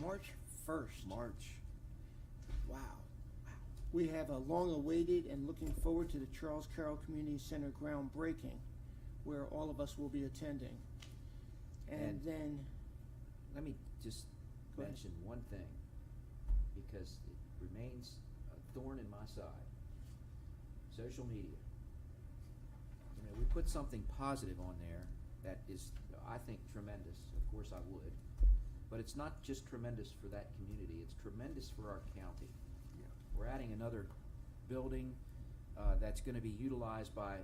March first. March. Wow. We have a long awaited and looking forward to the Charles Carroll Community Center groundbreaking, where all of us will be attending. And And- then, Let me just Go ahead. mention one thing, because it remains a thorn in my side. Social media. I mean, we put something positive on there that is, I think, tremendous, of course I would. But it's not just tremendous for that community, it's tremendous for our county. We're adding another building, uh, that's gonna be utilized by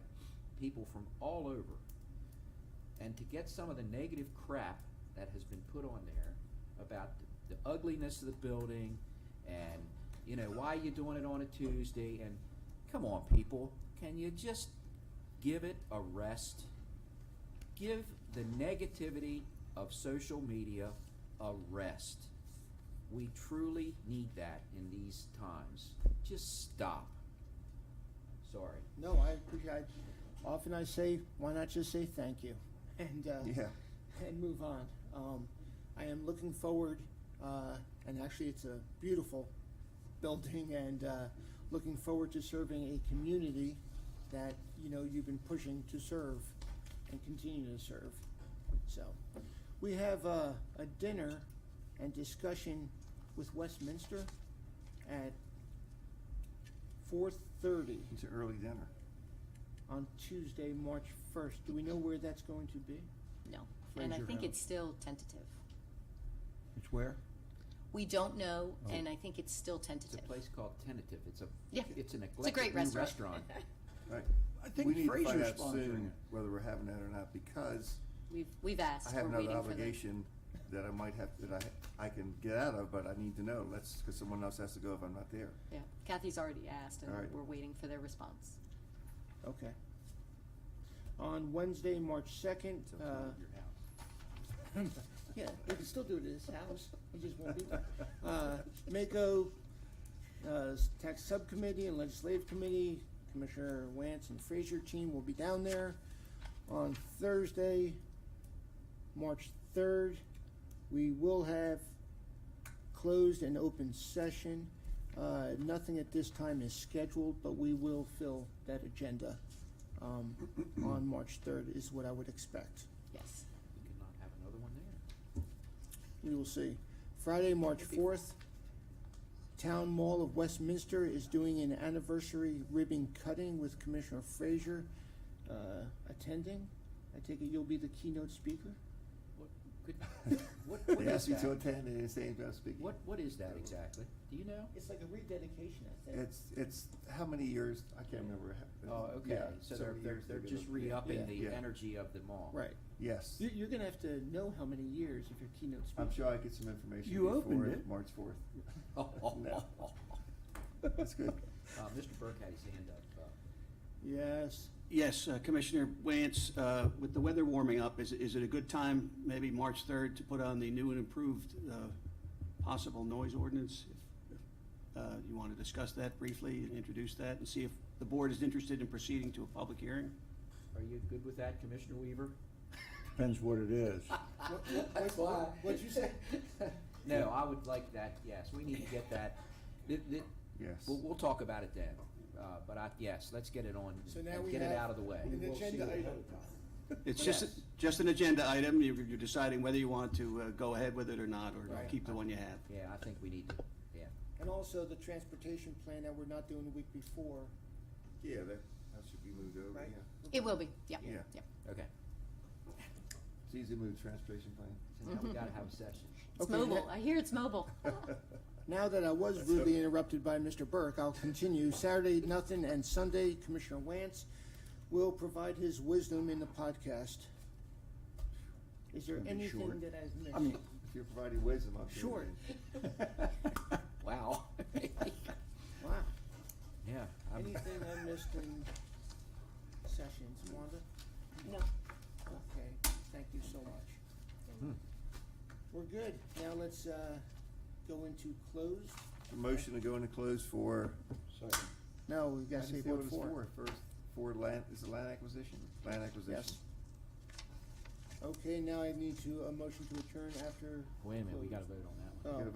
people from all over. And to get some of the negative crap that has been put on there about the the ugliness of the building and, you know, why you doing it on a Tuesday and, come on, people, can you just give it a rest? Give the negativity of social media a rest. We truly need that in these times. Just stop. Sorry. no, I appreciate, I- often I say, why not just say thank you? And, uh, Yeah. and move on. Um, I am looking forward, uh, and actually, it's a beautiful building, and uh, looking forward to serving a community that you know you've been pushing to serve and continue to serve. So, we have uh, a dinner and discussion with Westminster at four thirty It's an early dinner. on Tuesday, March first. Do we know where that's going to be? No, and I Fraser think House. it's still tentative. It's where? We don't know, Oh. and I think it's still It's a tentative. place called Tentative. It's a Yeah. it's an It's a eclectic great new restaurant. restaurant. Right. I We need to think find Fraser's out soon sponsoring it. Whether we're having that or not, because We've, we've asked, I we're have waiting for another them. obligation that I might have, that I, I can get out of, but I need to know, let's, because someone else has to go if I'm not there. Yeah, Kathy's already asked, and All right. we're waiting for their response. Okay. On Wednesday, March second, It's uh, outside of your house. yeah, we can still do it at his house, we just won't be there. Uh, Mako, uh, Tax Subcommittee and Legislative Committee, Commissioner Wance and Frazier team will be down there. On Thursday, March third, we will have closed and open session. Uh, nothing at this time is scheduled, but we will fill that agenda, um, on March third is what I would expect. Yes. You could not have another one there. We will see. Friday, March fourth, Town Mall of Westminster is doing an anniversary ribbon cutting with Commissioner Frazier, uh, attending. I take it you'll be the keynote speaker? What could what what They is asked me to that? attend, and they say I'm not speaking. What what is that exactly? Do you know? It's like a rededication, I think. It's, it's, how many years, I can't remember. how- Oh, okay. yeah, so they're many they're, years they're they've just been- yeah. re-upping Yeah. the Yeah. energy of the mall. Right. Yes, You, you're gonna have to know how many years if you're keynote speaker. I'm sure I get some information You opened before it. March fourth. Oh, No. That's good. Uh, Mr. Burke had his hand up. Uh, Yes. Yes, uh, Commissioner Wance, uh, with the weather warming up, is, is it a good time, maybe March 3rd, to put on the new and improved uh, possible noise ordinance? If if, uh, You want to discuss that briefly and introduce that and see if the board is interested in proceeding to a public hearing? are you good with that, Commissioner Weaver? Depends what it is. That's why. what'd you say? No, I would like that, yes, we need to get that. Th- th- Yes. We'll, we'll talk about it then, uh, but I, yes, let's get it on So now and we get it have out of the way. an We'll see agenda what- item. It's just, Yes. just an agenda item, you're you're deciding whether you want to uh, go ahead with it or not, or Right. keep the one you have. Yeah, I think we need to, yeah. And also the transportation plan that we're not doing the week before. Yeah, that, that should be moved over, Right. yeah. It will be, yeah, yeah. Yeah. Okay, It's easy to move transportation plan. so now we gotta have a session. It's Okay, mobile, ne- I hear it's mobile. Now that I was rudely interrupted by Mr. Burke, I'll continue. Saturday, nothing, and Sunday, Commissioner Wance will provide his wisdom in the podcast. Is there Gonna be anything short. that I've missed? I mean, if you're providing wisdom, I'm Sure. sure. Wow. Wow, Yeah. I'm- anything I missed in sessions, Wanda? No, Okay, thank you so much. Hmm. We're good. Now let's, uh, go into closed. A Motion to go into close for. Second. No, we I gotta didn't say see what it's for. First, for land, is it land acquisition? Land acquisition. Yes. Okay, now I need to, a motion to adjourn after. Wait a minute, we closed. gotta vote on that one. Oh. Gotta